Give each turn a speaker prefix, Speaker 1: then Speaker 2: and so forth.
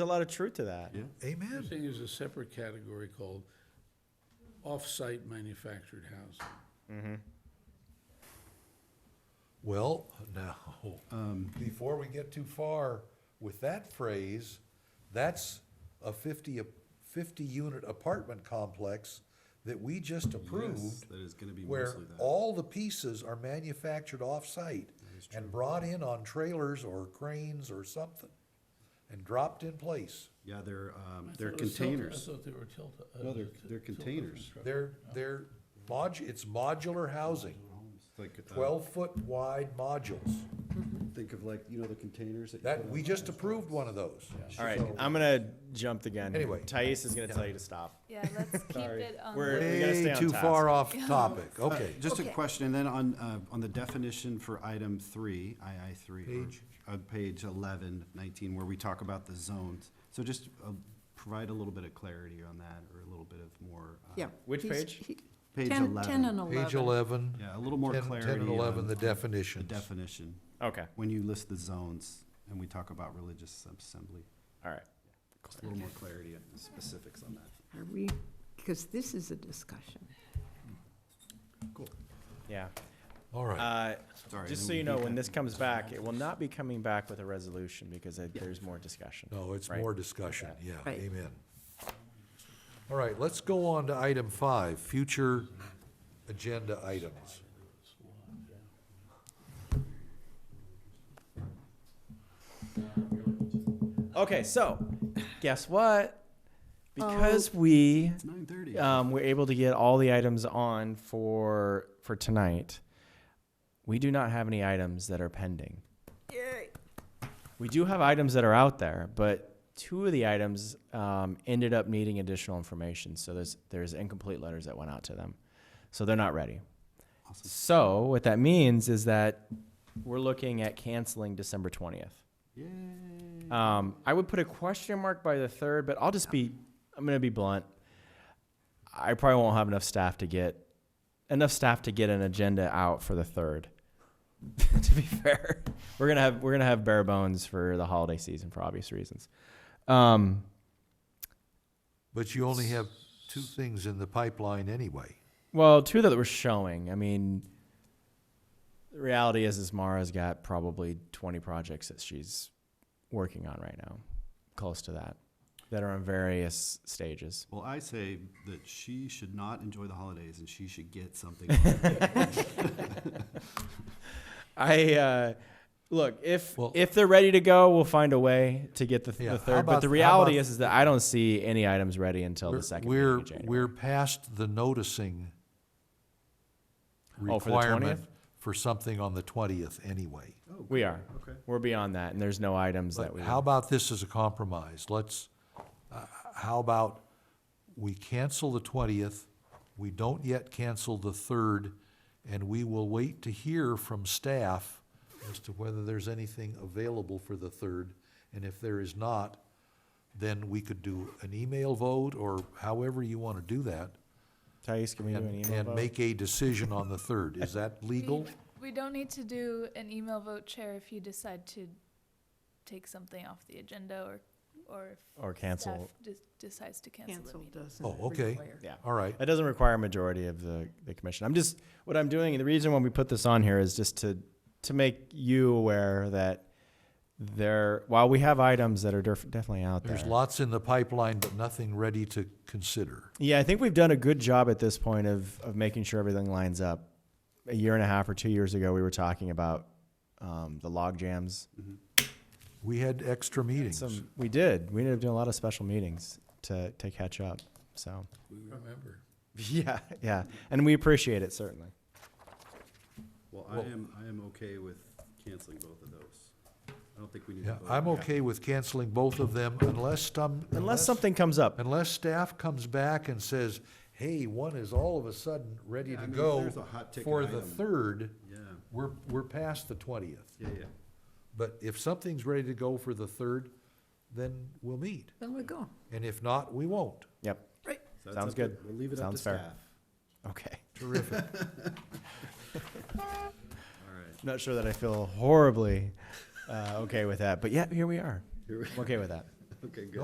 Speaker 1: There's a lot of truth to that.
Speaker 2: Yeah.
Speaker 3: Amen.
Speaker 4: Housing is a separate category called off-site manufactured housing.
Speaker 3: Well, now,
Speaker 2: Um,
Speaker 3: before we get too far with that phrase, that's a fifty, a fifty-unit apartment complex that we just approved.
Speaker 2: that is gonna be
Speaker 3: Where
Speaker 2: mostly that.
Speaker 3: all the pieces are manufactured off-site and brought in on trailers or cranes or something and dropped in place.
Speaker 2: Yeah, they're, um,
Speaker 4: I
Speaker 2: they're
Speaker 4: thought it was Tilton-
Speaker 2: containers.
Speaker 4: I thought they were tilted.
Speaker 2: No, they're- they're containers.
Speaker 3: They're, they're modu, it's modular housing,
Speaker 2: It's Like, uh,
Speaker 3: twelve-foot wide modules.
Speaker 2: think of like, you know, the containers that. you
Speaker 3: That,
Speaker 2: put
Speaker 3: we
Speaker 2: on-
Speaker 3: just approved one of those.
Speaker 1: All right, I'm gonna jump the gun.
Speaker 3: Anyway.
Speaker 1: Thais is gonna tell you to stop.
Speaker 5: Yeah, let's keep
Speaker 1: Sorry.
Speaker 5: it on.
Speaker 1: We're-
Speaker 5: the-
Speaker 1: we gotta stay
Speaker 3: Way
Speaker 1: on
Speaker 3: too
Speaker 1: task.
Speaker 3: far off topic, okay.
Speaker 2: Just a
Speaker 5: Okay.
Speaker 2: question, and then on, uh, on the definition for item three, II three. or-
Speaker 3: Page?
Speaker 2: On page eleven, nineteen, where we talk about the zones. So just, uh, provide a little bit of clarity on that, or a little bit of more. uh,
Speaker 6: Yeah.
Speaker 1: Which
Speaker 6: he's-
Speaker 1: page?
Speaker 6: he-
Speaker 2: Page
Speaker 6: 10
Speaker 2: eleven,
Speaker 6: 10 and
Speaker 3: Page
Speaker 6: 11.
Speaker 3: eleven.
Speaker 2: Yeah, a little more
Speaker 3: 10 Ten
Speaker 2: clarity
Speaker 3: and eleven,
Speaker 2: on-
Speaker 3: the
Speaker 2: the
Speaker 3: definitions.
Speaker 2: definition,
Speaker 1: Okay,
Speaker 2: when you list the zones, and we talk about religious assembly.
Speaker 1: all right.
Speaker 2: A little more clarity and specifics on that.
Speaker 6: Are we, because this is a discussion.
Speaker 1: Yeah.
Speaker 3: All right,
Speaker 1: Uh,
Speaker 2: Sorry,
Speaker 1: just
Speaker 2: then
Speaker 1: so
Speaker 2: we
Speaker 1: you know,
Speaker 2: beat
Speaker 1: when
Speaker 2: that
Speaker 1: this comes back, it will not be coming back with a resolution because it- there's more discussion.
Speaker 3: no, it's
Speaker 1: right.
Speaker 3: more discussion, yeah,
Speaker 6: Right.
Speaker 3: amen. All right, let's go on to item five, future agenda items.
Speaker 1: Okay, so guess what? Because we
Speaker 2: It's nine thirty.
Speaker 1: um, we're able to get all the items on for for tonight, we do not have any items that are pending. We do have items that are out there, but two of the items um, ended up needing additional information. So there's there's incomplete letters that went out to them, so they're not ready. So what that means is that we're looking at canceling December twentieth. Um, I would put a question mark by the third, but I'll just be I'm gonna be blunt. I probably won't have enough staff to get enough staff to get an agenda out for the third. to be fair, we're gonna have we're gonna have bare bones for the holiday season for obvious reasons. Um,
Speaker 3: But you only have two things in the pipeline anyway.
Speaker 1: well, two that we're showing. I mean, the reality is, is Mara's got probably 20 projects that she's working on right now, close to that, that are in various stages.
Speaker 2: Well, I say that she should not enjoy the holidays and she should get something.
Speaker 1: I uh, look if
Speaker 3: Well-
Speaker 1: if they're ready to go, we'll find a way to get the,
Speaker 3: Yeah,
Speaker 1: the
Speaker 3: how
Speaker 1: third.
Speaker 3: about-
Speaker 1: but the
Speaker 3: how
Speaker 1: reality
Speaker 3: about-
Speaker 1: is, is that I don't see any items ready until
Speaker 3: We're-
Speaker 1: the second.
Speaker 3: We're,
Speaker 1: meeting in
Speaker 3: we're
Speaker 1: January.
Speaker 3: past the noticing
Speaker 1: Oh, for the
Speaker 3: requirement
Speaker 1: 20th?
Speaker 3: for something on the twentieth anyway.
Speaker 1: we are
Speaker 2: Okay.
Speaker 1: we're beyond that, and there's no items that
Speaker 3: But
Speaker 1: we.
Speaker 3: how about this as a compromise? Let's, uh, how about we cancel the twentieth, we don't yet cancel the third, and we will wait to hear from staff as to whether there's anything available for the third, and if there is not, then we could do an email vote, or however you want to do that,
Speaker 1: Thais, can we do an
Speaker 3: and,
Speaker 1: email
Speaker 3: and
Speaker 1: vote?
Speaker 3: make a decision on the third. Is that legal?
Speaker 5: We don't need to do an email vote, Chair, if you decide to take something off the agenda or, or
Speaker 1: or
Speaker 5: if staff
Speaker 1: cancel?
Speaker 5: de- decides to cancel the
Speaker 6: Cancel
Speaker 5: meeting.
Speaker 6: doesn't
Speaker 3: Oh, okay.
Speaker 6: require.
Speaker 1: Yeah.
Speaker 3: All right,
Speaker 1: That doesn't require a majority of the, the commission. I'm just, what I'm doing, the reason why we put this on here is just to, to make you aware that there, while we have items that are def- definitely out there.
Speaker 3: there's lots in the pipeline, but nothing ready to consider.
Speaker 1: Yeah, I think we've done a good job at this point of, of making sure everything lines up. A year and a half or two years ago, we were talking about um, the log jams.
Speaker 3: We had extra meetings.
Speaker 1: Some, we did. We ended up doing a lot of special meetings to, to catch up. So,
Speaker 4: We remember.
Speaker 1: yeah, yeah. And we appreciate it, certainly.
Speaker 2: Well, I am, I am okay with canceling both of those. I don't think we need to
Speaker 3: Yeah,
Speaker 2: vote.
Speaker 3: I'm okay with canceling both of them unless some.
Speaker 1: Unless something comes up.
Speaker 3: Unless staff comes back and says, hey, one is all of a sudden ready
Speaker 2: Yeah, I
Speaker 3: to
Speaker 2: mean, if
Speaker 3: go
Speaker 2: there's a hot ticket
Speaker 3: for the
Speaker 2: item.
Speaker 3: third,
Speaker 2: Yeah,
Speaker 3: we're, we're past the twentieth.
Speaker 2: yeah, yeah.
Speaker 3: But if something's ready to go for the third, then we'll meet.
Speaker 6: Then we go.
Speaker 3: And if not, we won't.
Speaker 1: Yep.
Speaker 6: Right.
Speaker 2: So that's
Speaker 1: Sounds
Speaker 2: up to-
Speaker 1: good.
Speaker 2: We'll leave it up to
Speaker 1: Sounds fair.
Speaker 2: staff.
Speaker 1: Okay.
Speaker 3: Terrific.
Speaker 2: All right.
Speaker 1: Not sure that I feel horribly uh, okay with that, but yeah, here we are.
Speaker 2: Here we-
Speaker 1: I'm okay with that.
Speaker 2: Okay, good.